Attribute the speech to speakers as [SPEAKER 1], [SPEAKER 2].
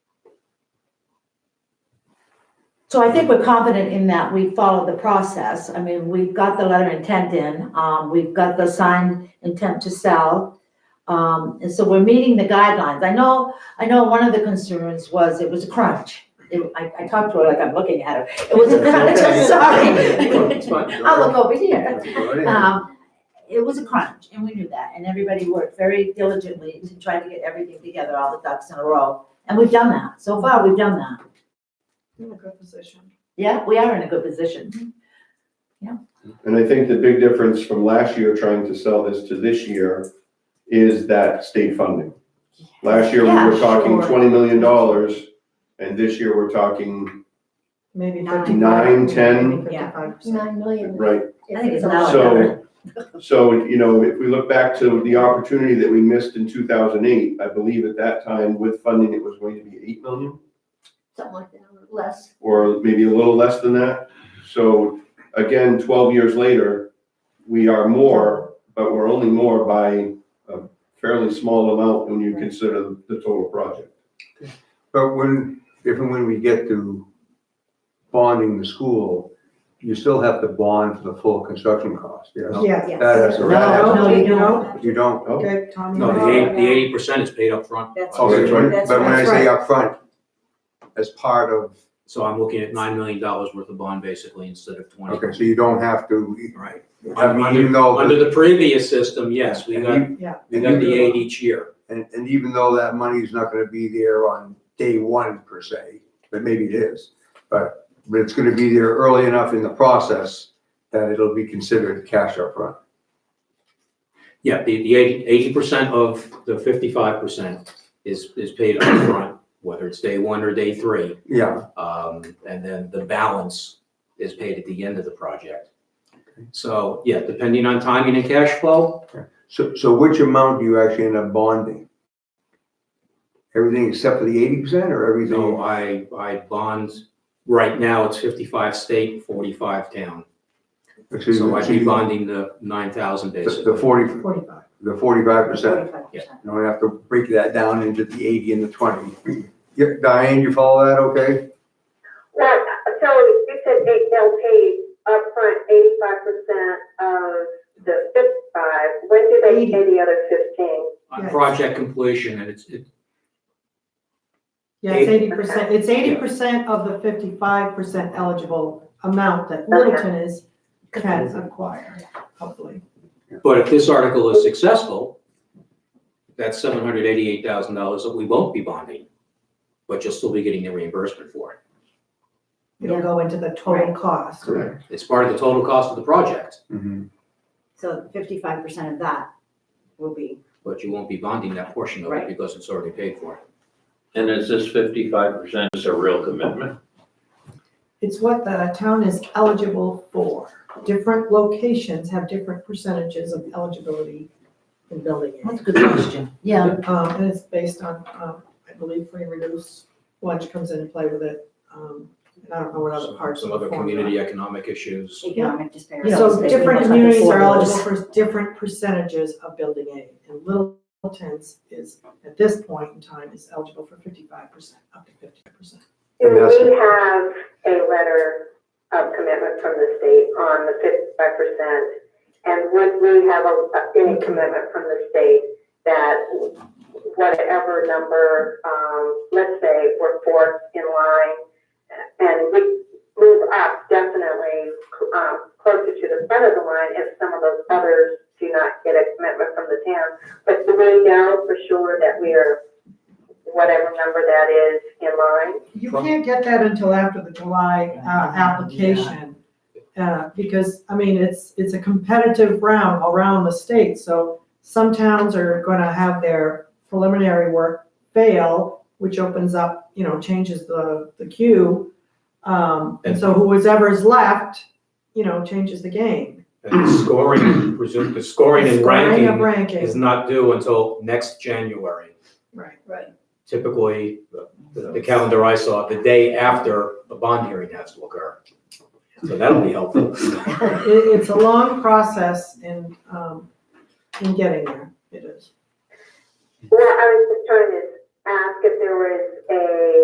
[SPEAKER 1] So I think we're confident in that we followed the process. I mean, we've got the letter intent in, um, we've got the signed intent to sell. Um, and so we're meeting the guidelines. I know, I know one of the concerns was it was a crunch. It, I, I talked to her like I'm looking at her. It was a crunch, I'm
[SPEAKER 2] It's
[SPEAKER 1] sorry.
[SPEAKER 2] fine.
[SPEAKER 1] I'll look over here.
[SPEAKER 2] Go ahead.
[SPEAKER 1] Um, it was a crunch, and we knew that, and everybody worked very diligently to try to get everything together, all the ducks in a row. And we've done that, so far, we've done that.
[SPEAKER 3] In a good position.
[SPEAKER 1] Yeah, we are in a good position.
[SPEAKER 4] And I think the big difference from last year trying to sell this to this year is that state funding. Last year, we
[SPEAKER 1] Yeah,
[SPEAKER 4] were talking
[SPEAKER 1] sure.
[SPEAKER 4] twenty million dollars, and this year, we're talking,
[SPEAKER 3] Maybe
[SPEAKER 5] Nine.
[SPEAKER 3] fifty-five.
[SPEAKER 4] Nine, 10.
[SPEAKER 3] maybe fifty-five percent.
[SPEAKER 5] Nine million.
[SPEAKER 4] right?
[SPEAKER 1] I think it's now.
[SPEAKER 4] So- So, you know, if we look back to the opportunity that we missed in two thousand eight, I believe at that time with funding, it was going to be eight million,
[SPEAKER 5] Something like that, or less.
[SPEAKER 4] or maybe a little less than that. So again, twelve years later, we are more, but we're only more by a fairly small amount when you consider the total project.
[SPEAKER 2] But when, if and when we get to bonding the school, you still have to bond for the full construction cost, you know?
[SPEAKER 3] Yeah.
[SPEAKER 2] That has to, that
[SPEAKER 1] No,
[SPEAKER 2] has,
[SPEAKER 1] no, you don't.
[SPEAKER 2] you don't.
[SPEAKER 4] No.
[SPEAKER 3] Okay, Tommy.
[SPEAKER 6] Oh. No, the eight, the eighty percent is paid up front.
[SPEAKER 7] That's
[SPEAKER 4] Oh,
[SPEAKER 2] Okay,
[SPEAKER 4] that's
[SPEAKER 2] when-
[SPEAKER 7] right.
[SPEAKER 2] but when I
[SPEAKER 3] That's
[SPEAKER 2] say upfront, as part of,
[SPEAKER 6] So I'm looking at nine million dollars worth of bond basically instead of twenty.
[SPEAKER 2] okay, so you don't have to,
[SPEAKER 6] Right.
[SPEAKER 2] I mean, even though.
[SPEAKER 6] Under the previous system, yes, we got,
[SPEAKER 2] And
[SPEAKER 3] Yeah.
[SPEAKER 6] we got the eight each year.
[SPEAKER 2] And, and even though that money's not gonna be there on day one per se, but maybe it is, but, but it's gonna be there early enough in the process that it'll be considered cash upfront.
[SPEAKER 6] Yeah, the, the eighty, eighty percent of the fifty-five percent is, is paid up front, whether it's day one or day three.
[SPEAKER 2] Yeah,
[SPEAKER 6] Um, and then the balance is paid at the end of the project. So, yeah, depending on timing and cash flow,
[SPEAKER 2] so, so which amount do you actually end up bonding? Everything except for the eighty percent or
[SPEAKER 6] you know,
[SPEAKER 2] everything?
[SPEAKER 6] I, I bond, right now it's fifty-five state, forty-five town.
[SPEAKER 2] Excuse me,
[SPEAKER 6] So I'd be
[SPEAKER 2] the-
[SPEAKER 6] bonding the nine thousand
[SPEAKER 2] The
[SPEAKER 6] basically.
[SPEAKER 2] the forty,
[SPEAKER 3] Forty-five.
[SPEAKER 2] the forty-five percent,
[SPEAKER 6] Yeah.
[SPEAKER 2] you don't have to break that down into the eighty and the twenty. Yeah, Diane, you follow that okay?
[SPEAKER 7] Well, so you said they, they'll pay upfront eighty-five percent of the fifty-five. When do they pay the other fifteen?
[SPEAKER 6] on
[SPEAKER 3] Yes.
[SPEAKER 6] project completion, and it's, it,
[SPEAKER 3] Yeah, it's eighty percent, it's eighty percent of the fifty-five percent eligible amount that Littleton is, can acquire, hopefully.
[SPEAKER 6] but if this article is successful, that's seven hundred eighty-eight thousand dollars that we won't be bonding, but you'll still be getting the reimbursement for it.
[SPEAKER 3] It'll
[SPEAKER 1] Yeah.
[SPEAKER 3] go into the total cost.
[SPEAKER 2] Correct.
[SPEAKER 6] It's part of the total cost of the project,
[SPEAKER 2] Mhm.
[SPEAKER 8] So fifty-five percent of that will be,
[SPEAKER 6] but you won't be bonding that portion of it
[SPEAKER 8] Right.
[SPEAKER 6] because it's already paid for.
[SPEAKER 9] And is this fifty-five percent is a real commitment?
[SPEAKER 3] It's what the town is eligible for. Different locations have different percentages of eligibility in building it.
[SPEAKER 1] That's a good question. Yeah,
[SPEAKER 3] Um, and it's based on, um, I believe free and reduced lunch comes into play with it. Um, and I don't know what other
[SPEAKER 6] Some-
[SPEAKER 3] parts of
[SPEAKER 6] Some
[SPEAKER 3] the
[SPEAKER 6] other
[SPEAKER 3] formula.
[SPEAKER 6] community economic issues.
[SPEAKER 8] economic disparities.
[SPEAKER 3] So
[SPEAKER 8] basically
[SPEAKER 3] different
[SPEAKER 8] much like the
[SPEAKER 3] communities are
[SPEAKER 8] affordable-
[SPEAKER 3] eligible for different percentages of building aid. And Littleton's is, at this point in time, is eligible for fifty-five percent, up to fifty-five percent.
[SPEAKER 7] Do
[SPEAKER 2] And that's-
[SPEAKER 7] we have a letter of commitment from the state on the fifty-five percent? And would we have a, any commitment from the state that whatever number, um, let's say we're fourth in line and we move up definitely, um, closer to the front of the line if some of those others do not get a commitment from the town. But do we know for sure that we are, whatever number that is, in line?
[SPEAKER 3] You
[SPEAKER 6] From-
[SPEAKER 3] can't get that until after the July, uh, application. Uh, because, I mean, it's, it's a competitive round around the state, so some towns are gonna have their preliminary work fail, which opens up, you know, changes the, the queue. Um, and so whoever is left, you know, changes the game.
[SPEAKER 6] And the scoring, presume, the scoring and
[SPEAKER 3] Scoring of
[SPEAKER 6] ranking is
[SPEAKER 3] ranking,
[SPEAKER 6] not due until next January.
[SPEAKER 3] right.
[SPEAKER 6] typically, the- the the calendar I saw, the day after the bond hearing has to occur. So that'll be helpful.
[SPEAKER 3] It, it's a long process in, um, in getting there, it is.
[SPEAKER 7] Well, I was just trying to ask if there was a